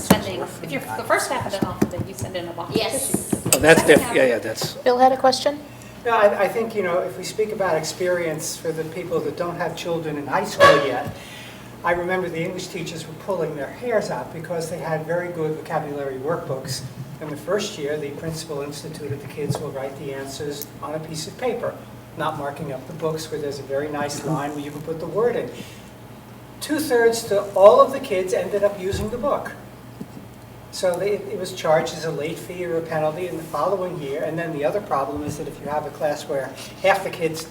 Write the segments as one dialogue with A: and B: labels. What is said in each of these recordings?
A: If you're, the first half of it off, then you send in a box of
B: Yes.
A: tissues.
C: Oh, that's, def- yeah, yeah, that's,
D: Bill had a question?
E: No, I, I think, you know, if we speak about experience for the people that don't have children in high school yet, I remember the English teachers were pulling their hairs out because they had very good vocabulary workbooks. In the first year, the principal instituted the kids will write the answers on a piece of paper, not marking up the books where there's a very nice line where you can put the word in. Two-thirds to all of the kids ended up using the book. So they- it was charged as a late fee or a penalty in the following year. And then the other problem is that if you have a class where half the kids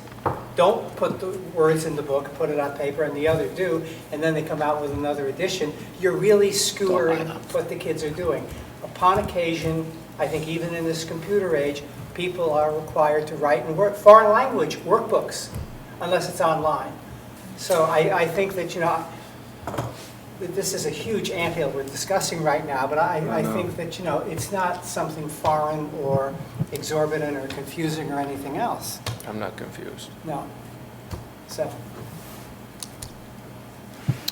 E: don't put the words in the book, put it on paper, and the other do, and then they come out with another edition, you're really skewering what the kids are doing. Upon occasion, I think even in this computer age, people are required to write and work, foreign language workbooks, unless it's online. So I, I think that, you know, that this is a huge anthill we're discussing right now, but I, I think that, you know, it's not something foreign or exorbitant or confusing or anything else,
F: I'm not confused.
E: no. So,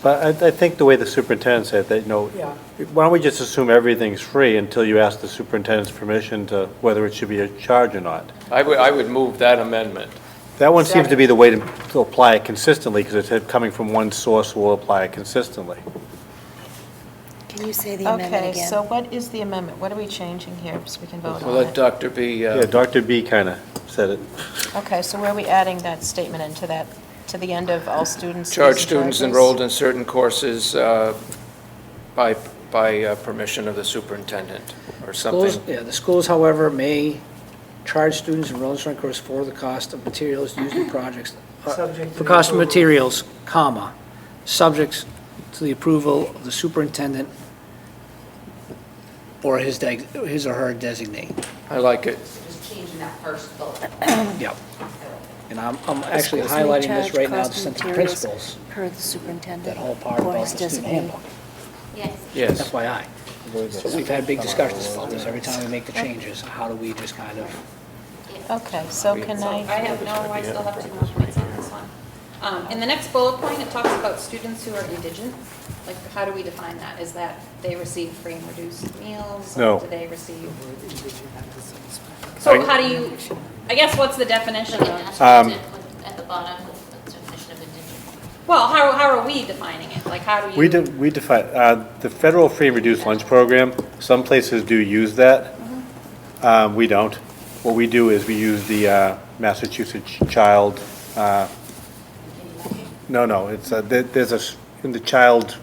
G: But I, I think the way the superintendent said that, you know,
E: Yeah.
G: why don't we just assume everything's free until you ask the superintendent's permission to whether it should be a charge or not?
F: I would, I would move that amendment.
G: That one seems to be the way to, to apply it consistently, because it's coming from one source, we'll apply it consistently.
B: Can you say the amendment
H: Okay, so
B: again?
H: what is the amendment? What are we changing here, so we can vote
F: We'll
H: on
F: let
H: it?
F: Dr. B, uh,
G: Yeah, Dr. B kind of said it.
H: Okay, so where are we adding that statement into that, to the end of all students? fees,
F: charge
H: and
F: students
H: charges?
F: enrolled in certain courses uh, by, by uh, permission of the superintendent, or
C: schools,
F: something.
C: yeah, the schools, however, may charge students enrolled in certain courses for the cost of materials used in projects. uh,
E: Subject to
C: For cost of
E: approval.
C: materials, comma, subjects to the approval of the superintendent or his, deg- his or her designee.
F: I like it.
B: Just changing that first bullet.
C: Yep. And I'm, I'm actually highlighting this right now to send to principals,
B: Per the superintendent.
C: that whole part about the student handbook.
B: Yes.
F: Yes.
C: FYI. So we've had big discussions about this. Every time we make the changes, how do we just kind of,
H: Okay, so can
A: So I
H: I,
A: have no, I still have two more points on this one. Um, In the next bullet point, it talks about students who are indigent. Like, how do we define that? Is that they receive free and reduced meals? or
G: No.
A: Do they receive?
E: I
A: So how do you, I guess, what's the definition of?
C: Uh,
G: Um,
B: At the bottom, with the definition of indigent.
A: Well, how, how are we defining it? Like, how do you?
G: We de- we define, uh, the federal free and reduced lunch program, some places do use that. Um, we don't. What we do is we use the, uh, Massachusetts Child, uh, no, no, it's, uh, there, there's a, s- in the child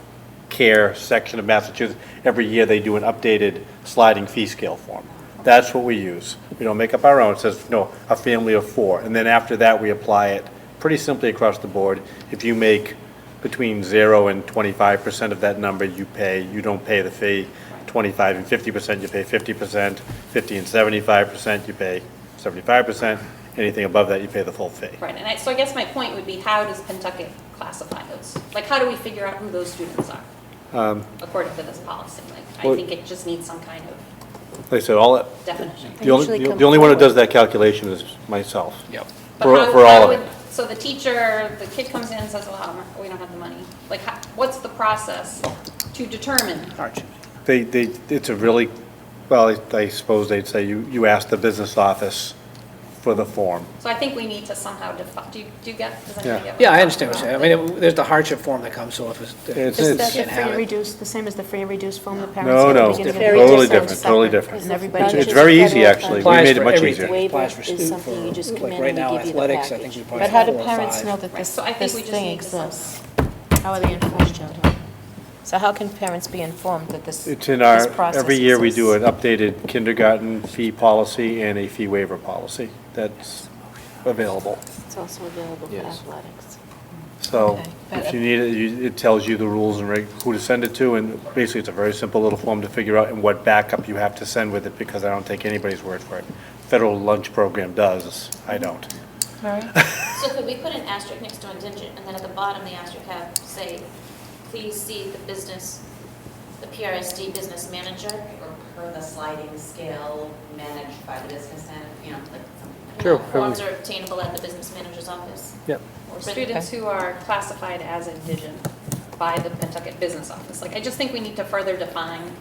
G: care section of Massachusetts, every year they do an updated sliding fee scale form. That's what we use. We don't make up our own. It says, no, a family of four. And then after that, we apply it pretty simply across the board. If you make between zero and twenty-five percent of that number, you pay, you don't pay the fee. Twenty-five and fifty percent, you pay fifty percent. Fifty and seventy-five percent, you pay seventy-five percent. Anything above that, you pay the full fee.
A: Right, and I, so I guess my point would be, how does Pentucket classify those? Like, how do we figure out who those students are? According to this policy, like, I
G: Um, well-
A: think it just needs some kind of
G: Like I said, all, that-
A: definition.
G: The only,
D: usually
G: the-
D: come
G: the only one who
D: forward.
G: does that calculation is myself.
C: Yep.
A: But
G: For,
A: how-
G: for
A: how
G: all of
A: would-
G: it.
A: So the teacher, the kid comes in and says, well, we don't have the money. Like, how- what's the process to determine?
C: Arch,
G: They, they, it's a really, well, I- I suppose they'd say you, you ask the business office for the form.
A: So I think we need to somehow define, do you, do you get, does anybody
G: Yeah.
A: get? what
C: Yeah, I
A: I'm
C: understand what
A: talking
C: you're
A: about?
C: saying. I mean, it- there's the hardship form that comes, so if it's,
G: It's-
C: if
D: Is that
C: it's,
D: the
C: can't
D: free
C: have
D: and
C: it.
D: reduced, the same as the free and reduced form the parents
G: No,
D: get at the
G: no,
D: beginning of the year?
G: totally
D: Separate,
G: different, totally different.
D: And everybody
G: It's
D: gets
G: it's
D: it.
G: very easy, actually. We
C: Applies
G: made
C: for
G: it much
C: everything.
G: easier.
C: Waiver
D: Waiver
C: for
D: is
C: student
D: something you
C: for-
D: just come
C: like
D: in
C: right
D: and
C: now,
D: they give you the
C: athletics, I think we
D: package.
C: probably
H: but how do
C: four or
H: parents
C: five.
H: know that this,
A: so I think
H: this
A: we just
H: thing
A: need to some-
H: exists? How are they informed? So how can parents be informed that this?
G: It's in our,
H: this process
G: every year we do
H: exists?
G: an updated kindergarten fee policy and a fee waiver policy that's available.
D: It's also available for
F: Yes.
D: athletics.
G: So
H: Okay, but-
G: if you need it, you- it tells you the rules and reg- who to send it to, and basically it's a very simple little form to figure out and what backup you have to send with it, because I don't take anybody's word for it. Federal lunch program does, I don't.
H: Mary?
B: So could we put an asterisk next to indigent, and then at the bottom, the asterisk have, say, please see the business, the PRSD business manager?
I: or per the sliding scale managed by the business end, you know, like something.
G: Sure,
B: Forms are obtainable at the business manager's office.
G: Yep.
A: Or students who are classified as indigent by the Pentucket Business Office. Like, I just think we need to further define